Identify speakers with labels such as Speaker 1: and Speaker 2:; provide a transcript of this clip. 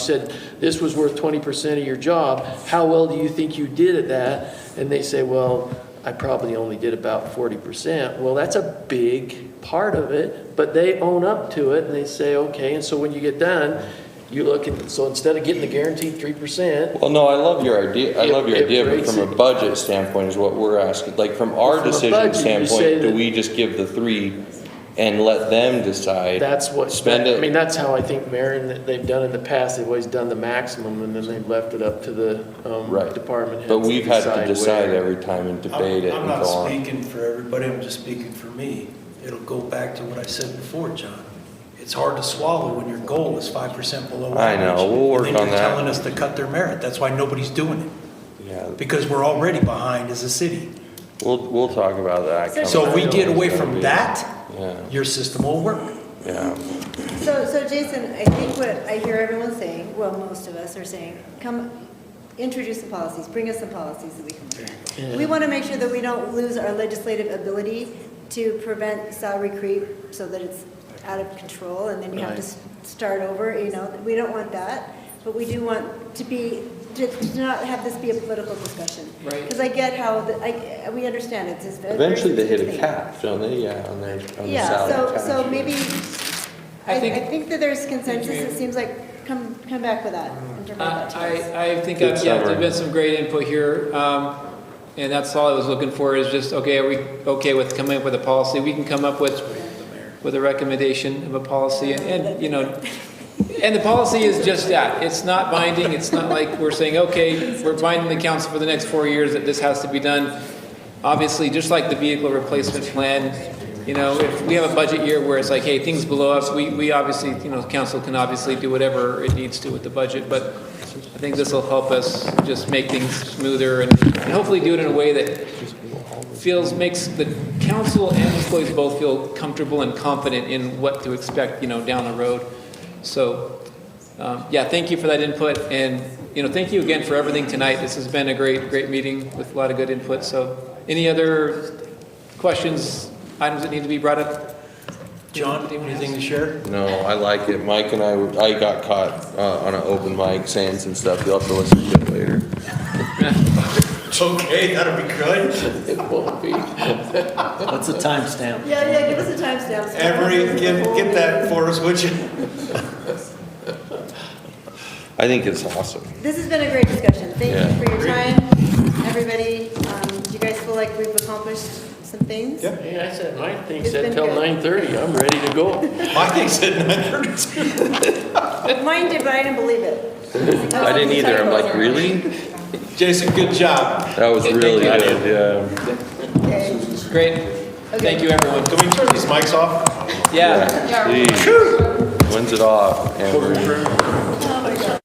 Speaker 1: said, this was worth 20% of your job, how well do you think you did at that? And they say, well, I probably only did about 40%. Well, that's a big part of it, but they own up to it and they say, okay, and so when you get done, you look and, so instead of getting the guaranteed 3%,
Speaker 2: Well, no, I love your idea, I love your
Speaker 1: It- it
Speaker 2: idea, but
Speaker 1: breaks
Speaker 2: from a
Speaker 1: it.
Speaker 2: budget standpoint is what we're asking, like, from our
Speaker 1: From a budget,
Speaker 2: decision
Speaker 1: you say
Speaker 2: standpoint, do
Speaker 1: that-
Speaker 2: we just give the three and let them decide?
Speaker 1: that's what,
Speaker 2: Spend
Speaker 1: I mean,
Speaker 2: it,
Speaker 1: that's how I think Marion, that they've done in the past, they've always done the maximum and then they've left it up to the um,
Speaker 2: Right.
Speaker 1: department heads.
Speaker 2: but we've had to decide
Speaker 1: where.
Speaker 2: every time and
Speaker 3: I'm-
Speaker 2: debate it and go
Speaker 3: I'm not
Speaker 2: on.
Speaker 3: speaking for everybody, I'm just speaking for me. It'll go back to what I said before, John. It's hard to swallow when your goal is five percent below
Speaker 2: I
Speaker 3: average.
Speaker 2: know, we'll work on
Speaker 3: And then you're
Speaker 2: that.
Speaker 3: telling us to cut their merit, that's why nobody's doing it,
Speaker 2: Yeah,
Speaker 3: because we're already behind as a city.
Speaker 2: we'll, we'll talk about that. coming
Speaker 3: So if we
Speaker 2: up.
Speaker 3: get away
Speaker 2: It's gonna
Speaker 3: from
Speaker 2: be-
Speaker 3: that,
Speaker 2: Yeah,
Speaker 3: your system will work.
Speaker 2: yeah.
Speaker 4: So, so Jason, I think what I hear everyone saying, well, most of us are saying, come, introduce some policies, bring us some policies that we can prevent. We want to make sure that we don't lose our legislative ability to prevent salary creep so that it's out of control and then you have to
Speaker 1: Right.
Speaker 4: s- start over, you know, we don't want that. But we do want to be, to to not have this be a political discussion.
Speaker 1: Right.
Speaker 4: Because I get how, the- I, we understand it's just. a very
Speaker 2: Eventually they hit a
Speaker 4: sensitive thing.
Speaker 2: cap, don't they, yeah, on their, on the salary
Speaker 4: Yeah, so,
Speaker 2: tax.
Speaker 4: so maybe, I,
Speaker 5: I
Speaker 4: I
Speaker 5: think-
Speaker 4: think that there's consensus, it seems like, come, come back with that. in terms of that choice.
Speaker 5: Uh, I, I think,
Speaker 2: Good
Speaker 5: I've- yeah,
Speaker 2: summary.
Speaker 5: there's been some great input here, um, and that's all I was looking for, is just, okay, are we okay with coming up with a policy? We can come up with, with a recommendation of a policy, and- and, you know, and the policy is just that, it's not binding, it's not like we're saying, okay, we're binding the council for the next four years that this has to be done. Obviously, just like the vehicle replacement plan, you know, if we have a budget year where it's like, hey, things below us, we, we obviously, you know, council can obviously do whatever it needs to with the budget, but I think this will help us just make things smoother and and hopefully do it in a way that feels, makes the council and employees both feel comfortable and confident in what to expect, you know, down the road. So, um, yeah, thank you for that input, and, you know, thank you again for everything tonight. This has been a great, great meeting with a lot of good input, so any other questions, items that need to be brought up?
Speaker 3: John, anything to share?
Speaker 2: No, I like it. Mike and I, were- I got caught uh, on an open mic saying some stuff. You'll have to listen to it later.
Speaker 3: Okay, that'll be good.
Speaker 1: It won't be.
Speaker 6: What's the timestamp?
Speaker 4: Yeah, yeah, give us a timestamp. so-
Speaker 3: Every, get, get that for us, would you?
Speaker 2: I think it's awesome.
Speaker 4: This has been a great discussion, thank
Speaker 2: Yeah.
Speaker 4: you for your time, everybody, um, do you guys feel like we've accomplished some things?
Speaker 3: Yeah.
Speaker 1: Hey, I said, my thing
Speaker 4: It's
Speaker 1: said
Speaker 4: been
Speaker 1: till
Speaker 4: good.
Speaker 1: 9:30, I'm ready to go.
Speaker 3: My thing said nine thirty-two.
Speaker 4: Mine did, but I didn't believe it.
Speaker 2: I didn't either. I'm like, really?
Speaker 3: Jason, good job.
Speaker 2: That was
Speaker 5: Hey, thank
Speaker 2: really
Speaker 5: you.
Speaker 2: good, yeah.
Speaker 4: Okay.
Speaker 5: Great, thank you, everyone.
Speaker 3: Can we turn these mics off?
Speaker 5: Yeah.
Speaker 2: Jeez. When's it off, Amber?